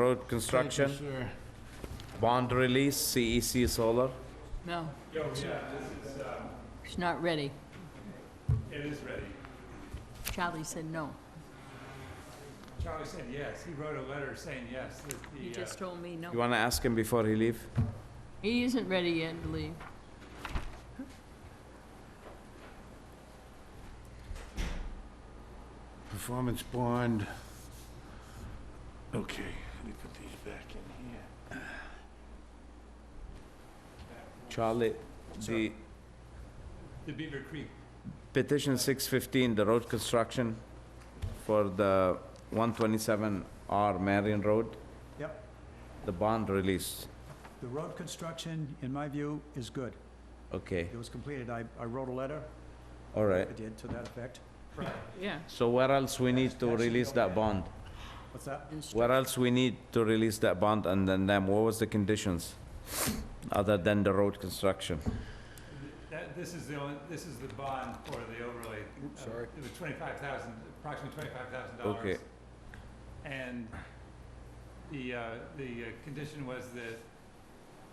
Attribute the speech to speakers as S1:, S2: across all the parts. S1: Road Construction, bond release, CEC Solar.
S2: No. It's not ready.
S3: It is ready.
S2: Charlie said no.
S3: Charlie said yes. He wrote a letter saying yes. that the,
S2: He
S3: uh,
S2: just told me
S1: You
S2: no.
S1: wanna ask him before he leave?
S2: He isn't ready yet to leave.
S4: Performance bond. Okay, let me put these back in here.
S1: Charlie, the
S3: The uh, Beaver Creek.
S1: petition six fifteen, the road construction for the one twenty-seven R Marion Road,
S5: Yep,
S1: the bond release.
S5: the road construction, in my view, is good.
S1: Okay,
S5: It was completed, I, I wrote a letter,
S1: all
S5: I
S1: right.
S5: did, to that effect.
S2: Yeah.
S1: So where else we need to release that bond?
S5: What's that?
S1: Where else we need to release that bond and then them, what was the conditions? Other than the road construction?
S3: That, this is the only, this is the bond for the overlay. Uh,
S5: sorry.
S3: It was twenty-five thousand, approximately twenty-five thousand
S1: Okay.
S3: dollars. And the, uh, the uh, condition was that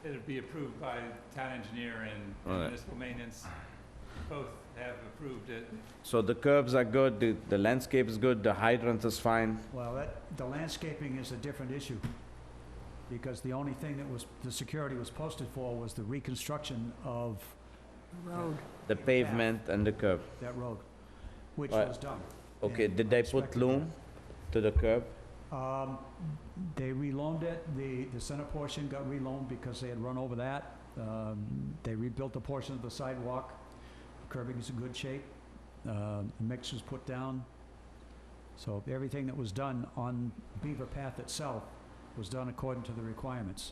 S3: it'd be approved by town engineer and
S1: All right.
S3: municipal maintenance. Both have approved it.
S1: So the curbs are good, the, the landscape is good, the hydrant is fine,
S5: Well, that, the landscaping is a different issue, because the only thing that was, the security was posted for was the reconstruction of
S2: Road.
S1: the
S5: Yeah.
S1: pavement and the curb.
S5: that road, which
S1: Right.
S5: was done.
S1: Okay,
S5: Yeah,
S1: did they
S5: I
S1: put
S5: expected
S1: loom to the curb?
S5: Um, They reloaned it, the, the center portion got reloaned because they had run over that. Um, They rebuilt the portion of the sidewalk, curbing is in good shape, Uh, the mix was put down. So everything that was done on Beaver Path itself was done according to the requirements,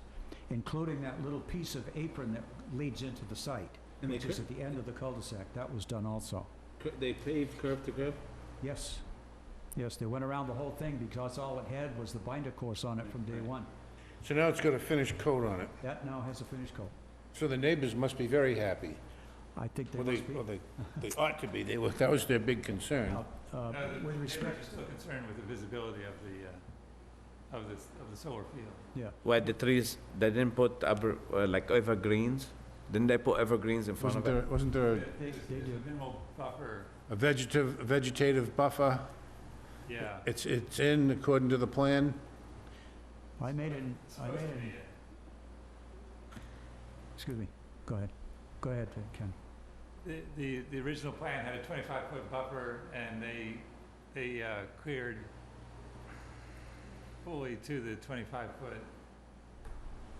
S5: including that little piece of apron that leads into the site,
S6: And they
S5: which is at the end of the cul-de-sac, that was done also.
S6: cur- they paved curb to curb?
S5: Yes, yes, they went around the whole thing because all it had was the binder course on it from day one.
S4: So now it's got a finished coat on it,
S5: That now has a finish coat.
S4: so the neighbors must be very happy.
S5: I think they
S4: Well, they,
S5: must be,
S4: well, they, they ought to be, they were, that was their big concern.
S5: uh,
S3: No, the
S5: with
S3: neighbors
S5: respect,
S3: are still concerned with the visibility of the, uh, of this, of the solar field.
S5: yeah.
S1: Where the trees, they didn't put abr- uh, like evergreens? Didn't they put evergreens in front
S4: Wasn't
S1: of it?
S4: there, wasn't there
S3: There-
S5: They-
S3: There's
S5: they
S3: there's a
S5: do.
S3: minimal buffer,
S4: a vegetative, vegetative buffer?
S3: yeah.
S4: It's, it's in according to the plan?
S5: I made an,
S3: It's
S5: I made
S3: supposed to be,
S5: an,
S3: uh,
S5: excuse me, go ahead, go ahead, uh, Ken.
S3: The, the, the original plan had a twenty-five foot buffer and they, they, uh, cleared fully to the twenty-five foot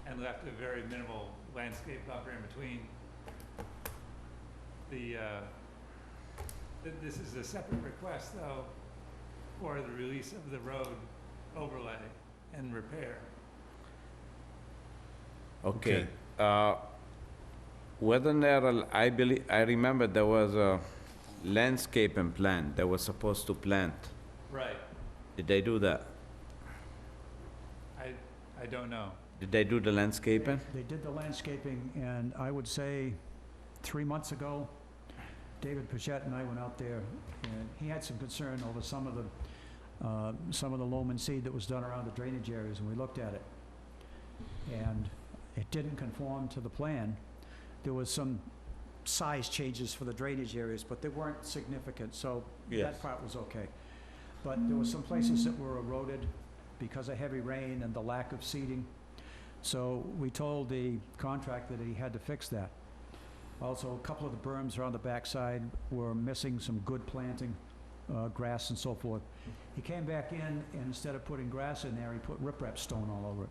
S3: and left a very minimal landscape buffer in between. The, uh, th- this is a separate request though for the release of the road overlay and repair.
S1: Okay. Uh, Wasn't there, a- I believe, I remember there was a landscaping plan they were supposed to plant.
S3: Right.
S1: Did they do that?
S3: I, I don't know.
S1: Did they do the landscaping?
S5: They did the landscaping, and I would say, three months ago, David Pichette and I went out there, and he had some concern over some of the, uh, some of the loam and seed that was done around the drainage areas, and we looked at it. And it didn't conform to the plan. There was some size changes for the drainage areas, but they weren't significant, so
S1: Yes.
S5: that part was okay. But there were some places that were eroded because of heavy rain and the lack of seeding. So we told the contractor that he had to fix that. Also, a couple of the berms around the backside were missing some good planting, uh, grass and so forth. He came back in, and instead of putting grass in there, he put riprap stone all over it,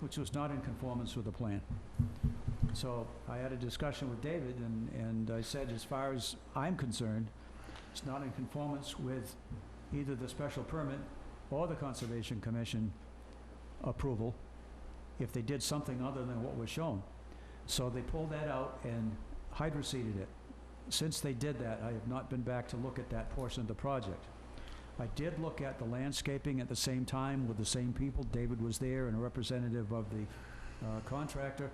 S5: which was not in conformance with the plan. So I had a discussion with David, and, and I said, as far as I'm concerned, it's not in conformance with either the special permit or the Conservation Commission approval, if they did something other than what was shown. So they pulled that out and hydroseeded it. Since they did that, I have not been back to look at that portion of the project. I did look at the landscaping at the same time with the same people. David was there and a representative of the uh, contractor.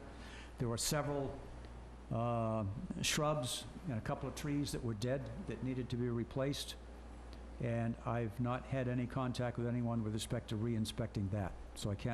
S5: There were several uh, shrubs and a couple of trees that were dead that needed to be replaced. And I've not had any contact with anyone with respect to re-inspecting that, so I can't